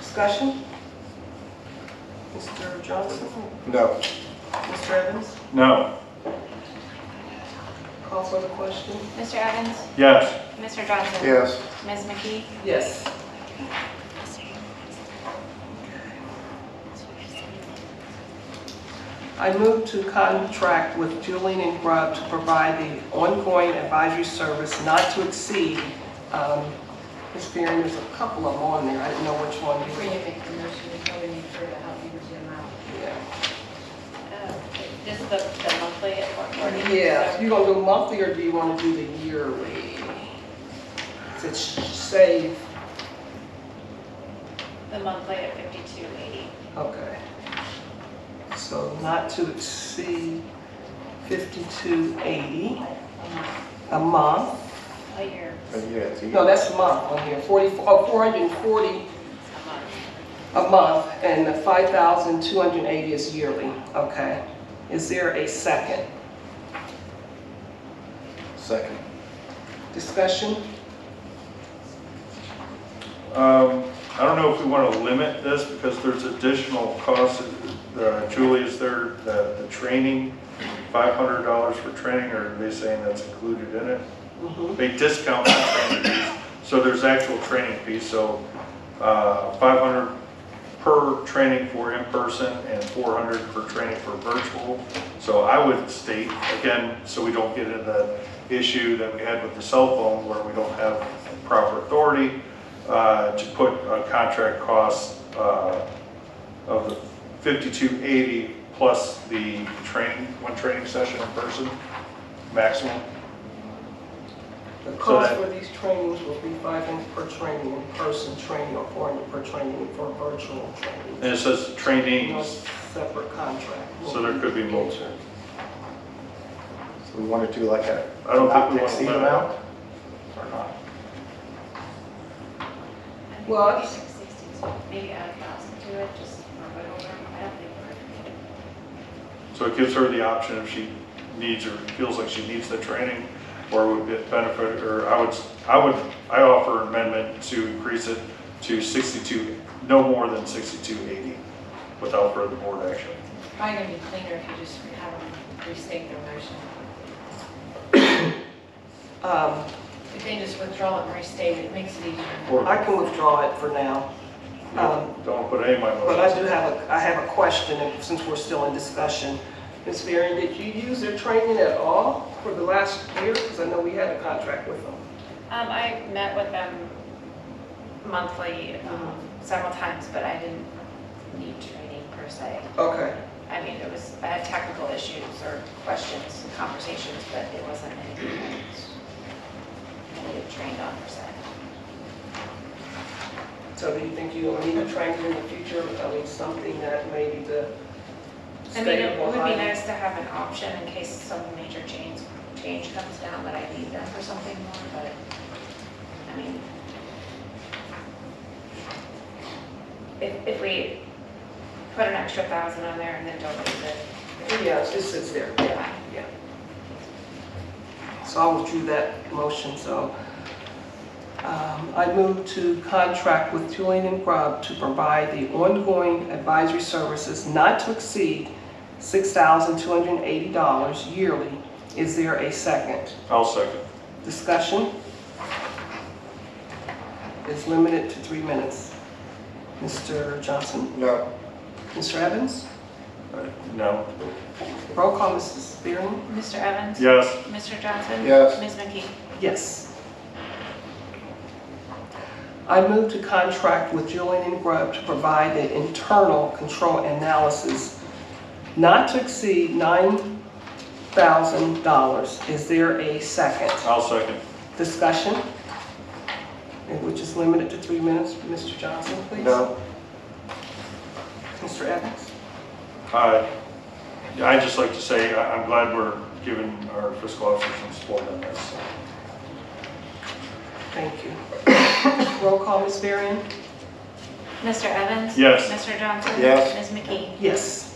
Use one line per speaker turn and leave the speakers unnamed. Discussion? Mr. Johnson?
No.
Mr. Evans?
No.
Call for the question?
Mr. Evans?
Yes.
Mr. Johnson?
Yes.
Ms. McKee?
Yes. I move to contract with Julian and Grubb to provide the ongoing advisory service not to exceed, um, Ms. Fearon, there's a couple of them on there, I didn't know which one.
Before you make the motion, you probably need her to help you with your mouth.
Yeah.
This is the the monthly at 440.
Yeah, you gonna do monthly or do you wanna do the yearly? To save,
The monthly at 5280.
okay. So not to exceed fifty-two eighty a month.
A year,
But yeah, it's
No,
easy.
that's a month on here, 40, oh, 440
a month.
a month, and the 5,280 is yearly, okay. Is there a second?
Second.
Discussion?
Um, I don't know if we want to limit this because there's additional costs. Uh, Julie, is there the, the training, $500 for training, or are they saying that's included in it?
Mhm.
They discount the training fees, so there's actual training fees, so uh, 500 per training for in-person and 400 per training for virtual. So I would state, again, so we don't get into the issue that we had with the cell phone where we don't have proper authority, uh, to put a contract cost uh, of the 5280 plus the training, one training session in person, maximum.
The
So
cost
that-
for these trainings will be 500 per training in person training or 400 per training for virtual training.
And it says
No
trainings,
separate contract.
so there could be multiple.
So we want to do like a
I don't
not
think
to
we want to
exceed
limit
amount?
it. Or not.
Well, I
Maybe
just-
662, Maybe add a thousand to it, just move it over. I don't think we're.
So it gives her the option if she needs or feels like she needs the training or would it benefit, or I would, I would, I offer amendment to increase it to 62, no more than 6280 without further board action.
Probably gonna be cleaner if you just have them restate their motion.
Um,
If they just withdraw it and restate it, it makes it easier.
Or
I can withdraw it for now. Um,
don't put any of my
But I
motions.
do have a, I have a question, and since we're still in discussion. Ms. Varian, did you use their training at all for the last year? Because I know we had a contract with them.
Um, I met with them monthly um, several times, but I didn't need training per se.
Okay.
I mean, it was, I had technical issues or questions, conversations, but it wasn't anything that I needed trained on per se.
So do you think you'll need a training in the future? I mean, something that maybe the
I mean,
state
it
of
would be
Ohio.
nice to have an option in case some major change, change comes down that I need them for something more, but, I mean, if, if we put an extra thousand on there and then don't use it,
Yeah, it sits there. Yeah, yeah. So I withdrew that motion, so. Um, I move to contract with Julian and Grubb to provide the ongoing advisory services not to exceed $6,280 yearly. Is there a second?
I'll second.
Discussion? It's limited to three minutes. Mr. Johnson?
No.
Mr. Evans?
Uh, No.
Roll call, Mrs. Spearman?
Mr. Evans?
Yes.
Mr. Johnson?
Yes.
Ms. McKee?
Yes. I move to contract with Julian and Grubb to provide the internal control analysis not to exceed $9,000. Is there a second?
I'll second.
Discussion? And Which is limited to three minutes. Mr. Johnson, please.
No.
Mr. Evans?
Uh, yeah, I'd just like to say, I- I'm glad we're giving our fiscal officer some support on this.
Thank you. Roll call, Ms. Varian?
Mr. Evans?
Yes.
Mr. Johnson?
Yes.
Ms. McKee?
Yes.